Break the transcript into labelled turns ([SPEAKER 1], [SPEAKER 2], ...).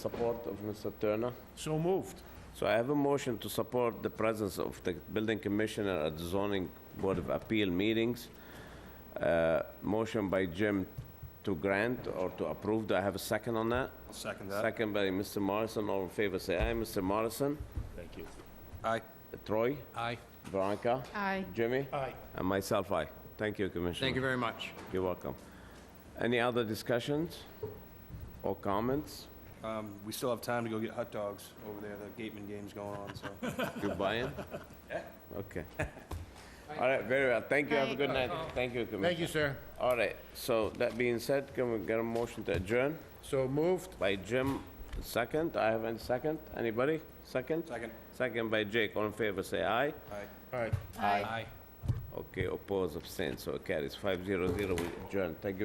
[SPEAKER 1] Support of Mr. Turner.
[SPEAKER 2] So moved.
[SPEAKER 1] So I have a motion to support the presence of the building commissioner at the zoning board of appeal meetings. Uh, Motion by Jim to grant or to approve. Do I have a second on that?
[SPEAKER 2] Second
[SPEAKER 1] Second by Mr. Morrison. All in favor, say aye. Mr. Morrison?
[SPEAKER 2] Thank you.
[SPEAKER 3] Aye.
[SPEAKER 1] Troy?
[SPEAKER 3] Aye.
[SPEAKER 1] Veronica?
[SPEAKER 4] Aye.
[SPEAKER 1] Jimmy?
[SPEAKER 2] Aye.
[SPEAKER 1] And myself, aye. Thank you, Commissioner.
[SPEAKER 3] Thank you very much.
[SPEAKER 1] You're welcome. Any other discussions or comments?
[SPEAKER 5] Um, we still have time to go get hot dogs over there. The Gateman game's going on, so.
[SPEAKER 1] You buying? Okay. All right, very well. Thank you. Have a good night. Thank you, Commissioner.
[SPEAKER 2] Thank you, sir.
[SPEAKER 1] All right, so that being said, can we get a motion to adjourn?
[SPEAKER 2] So moved.
[SPEAKER 1] By Jim, second. I have a second. Anybody? Second?
[SPEAKER 5] Second.
[SPEAKER 1] Second by Jake. All in favor, say aye.
[SPEAKER 5] Aye.
[SPEAKER 2] All right.
[SPEAKER 4] Aye.
[SPEAKER 3] Aye.
[SPEAKER 1] Okay, oppose, abstain, so it carries. Five zero zero, we adjourn. Thank you.